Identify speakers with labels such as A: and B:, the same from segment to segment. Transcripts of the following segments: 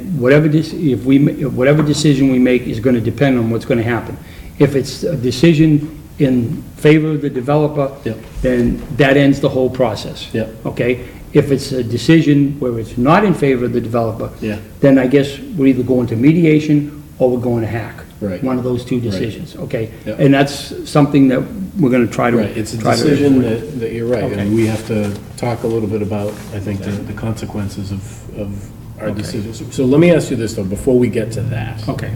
A: whatever this, if we, ma- whatever decision we make is gonna depend on what's gonna happen. If it's a decision in favor of the developer,
B: Yep.
A: then that ends the whole process.
B: Yep.
A: Okay? If it's a decision where it's not in favor of the developer,
B: Yeah.
A: then I guess we're either going to mediation or we're going to hack.
B: Right.
A: One of those two decisions, okay?
B: Yep.
A: And that's something that we're gonna try to.
B: Right, it's a
A: try to-
B: decision that, that you're right,
A: Okay.
B: and we have to talk a little bit about, I think, the the consequences of, of our decisions. So let me ask you this, though, before we get to that.
A: Okay,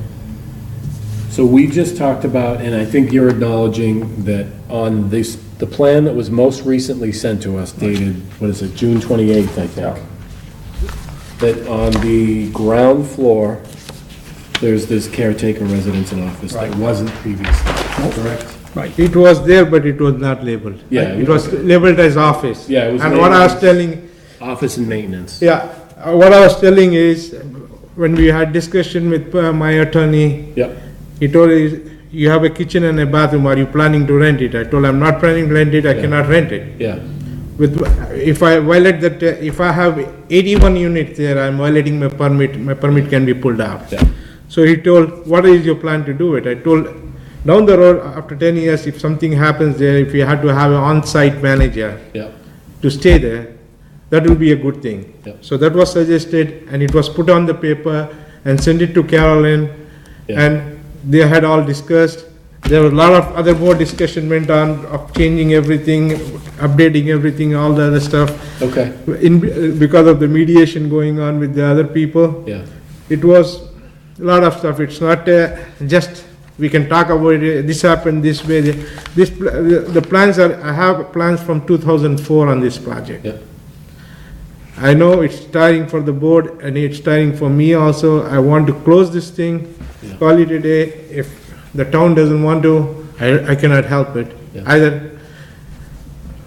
B: So we just talked about, and I think you're acknowledging that on this, the plan that was most recently sent to us dated, what is it, June 28th, I think? That on the ground floor, there's this caretaker residence and office that
A: Right.
B: wasn't previously. Correct.
A: right.
C: It was there, but it was not labeled.
B: Yeah,
C: It was labeled as office.
B: Yeah, it was
C: And what I was
B: labeled-
C: telling,
B: Office and maintenance.
C: yeah, uh, what I was telling is, when we had discussion with uh, my attorney,
B: Yep,
C: he told us, you have a kitchen and a bathroom, are you planning to rent it? I told, I'm not planning to rent it, I cannot rent it.
B: yeah.
C: With, if I violate that, uh, if I have eighty-one units there, I'm violating my permit, my permit can be pulled out.
B: Yeah.
C: So he told, what is your plan to do it? I told, down the road, after ten years, if something happens there, if you had to have an on-site manager
B: Yeah,
C: to stay there, that will be a good thing.
B: Yep.
C: So that was suggested, and it was put on the paper and sent it to Carolyn,
B: Yeah.
C: and they had all discussed. There were a lot of other more discussion went on of changing everything, updating everything, all the other stuff.
B: okay,
C: In, because of the mediation going on with the other people
B: yeah,
C: it was a lot of stuff, it's not uh, just, we can talk about it, this happened this way, the- this, pl- uh, the the plans are, I have plans from 2004 on this project.
B: yeah,
C: I know it's tiring for the board, and it's tiring for me also, I want to close this thing,
B: Yeah.
C: call it a day, if the town doesn't want to, I, I cannot help it.
B: Yeah.
C: Either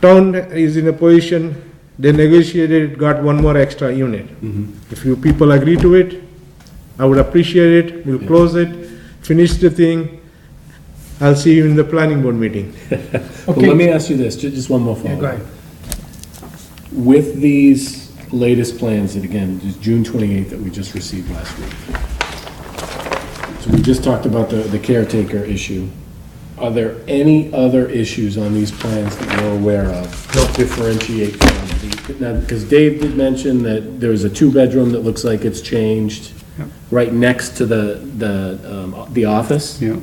C: town is in a position, they negotiated, got one more extra unit.
B: Mm-hmm.
C: If you people agree to it, I would appreciate it, we'll close it, finish the thing, I'll see you in the planning board meeting.
B: Well, let me ask you this, ju- just one more follow-up.
C: go ahead.
B: With these latest plans, and again, just June 28th that we just received last week. So we just talked about the the caretaker issue. Are there any other issues on these plans that you're aware of? No. Differentiate from the, now, because Dave did mention that there's a two-bedroom that looks like it's changed right next to the, the, um, the office?
A: Yeah.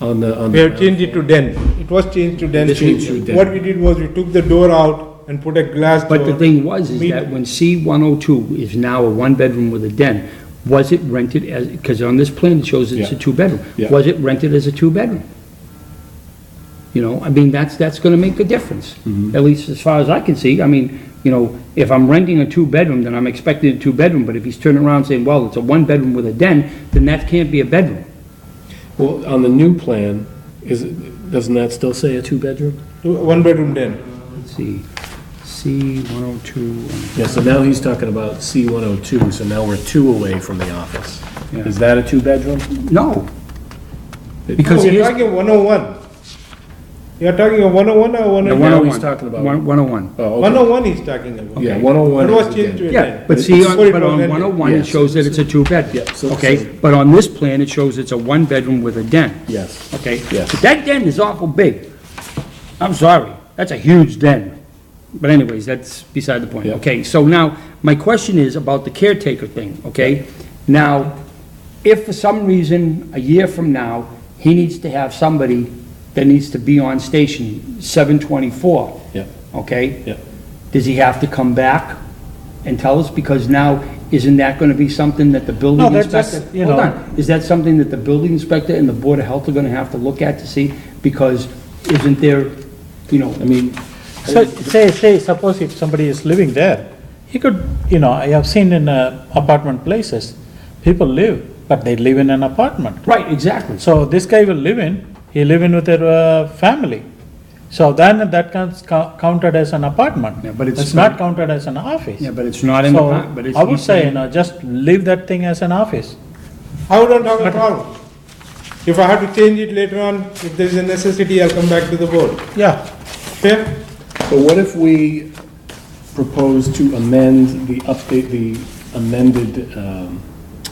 B: On the, on
C: We
B: the.
C: have changed it to den, it was changed to den.
B: This changed to den.
C: What we did was we took the door out and put a glass door.
A: But the thing was, is
C: Me-
A: that when C-102 is now a one-bedroom with a den, was it rented as, because on this plan, it shows it's a
B: Yeah.
A: two-bedroom.
B: Yeah.
A: Was it rented as a two-bedroom? You know, I mean, that's, that's gonna make a difference,
B: Mm-hmm.
A: at least as far as I can see. I mean, you know, if I'm renting a two-bedroom, then I'm expecting a two-bedroom, but if he's turning around saying, well, it's a one-bedroom with a den, then that can't be a bedroom.
B: Well, on the new plan, is, it doesn't that still say a two-bedroom?
C: One bedroom den.
A: Let's see, C-102,
B: Yeah, so now he's talking about C one oh two, so now we're two away from the office.
A: Yeah.
B: Is that a two-bedroom?
A: no.
C: No,
A: Because
C: You're
A: here's-
C: talking 101. You're talking of 101 or
A: the
C: 101?
B: one-
A: 101.
B: he's talking about-
A: One- 101.
B: Oh, okay.
C: 101 he's talking about.
B: Yeah, one oh one.
C: That was changed to a
A: Yeah,
C: 10.
A: but see, on-
C: Before it
A: but
C: was
A: on
C: rented.
A: 101,
B: Yeah,
A: it shows that it's a two-bed.
B: Yeah, so- so-
A: Okay, but on this plan, it shows it's a one-bedroom with a den,
B: Yes.
A: okay?
B: Yes.
A: But that den is awful big. I'm sorry, that's a huge den. But anyways, that's beside the point.
B: Yeah.
A: Okay, so now, my question is about the caretaker thing, okay? Now, if for some reason, a year from now, he needs to have somebody that needs to be on station 724,
B: Yeah,
A: okay?
B: yeah.
A: Does he have to come back and tell us? Because now, isn't that gonna be something that the
D: No,
A: building
D: that's
A: inspector?
D: just, you
A: Hold
D: know-
A: on. Is that something that the building inspector and the Board of Health are gonna have to look at to see? Because isn't there, you know,
B: I mean,
D: So, say, say, suppose if somebody is living there, he could, you know, I have seen in uh, apartment places, people live, but they live in an apartment.
A: right, exactly.
D: So this guy will live in, he live in with their uh, family. So then that counts cou- counted as an apartment.
A: Yeah, but it's
D: not counted as an office.
A: Yeah, but it's not in the,
D: So
A: pa- but it's.
D: I would
A: he's
D: say, you
A: saying-
D: know, just leave that thing as an office.
C: I wouldn't have a problem. If I have to change it later on, if there's a necessity, I'll come back to the board.
D: Yeah.
C: Okay?
B: but what if we propose to amend the update, the amended, um,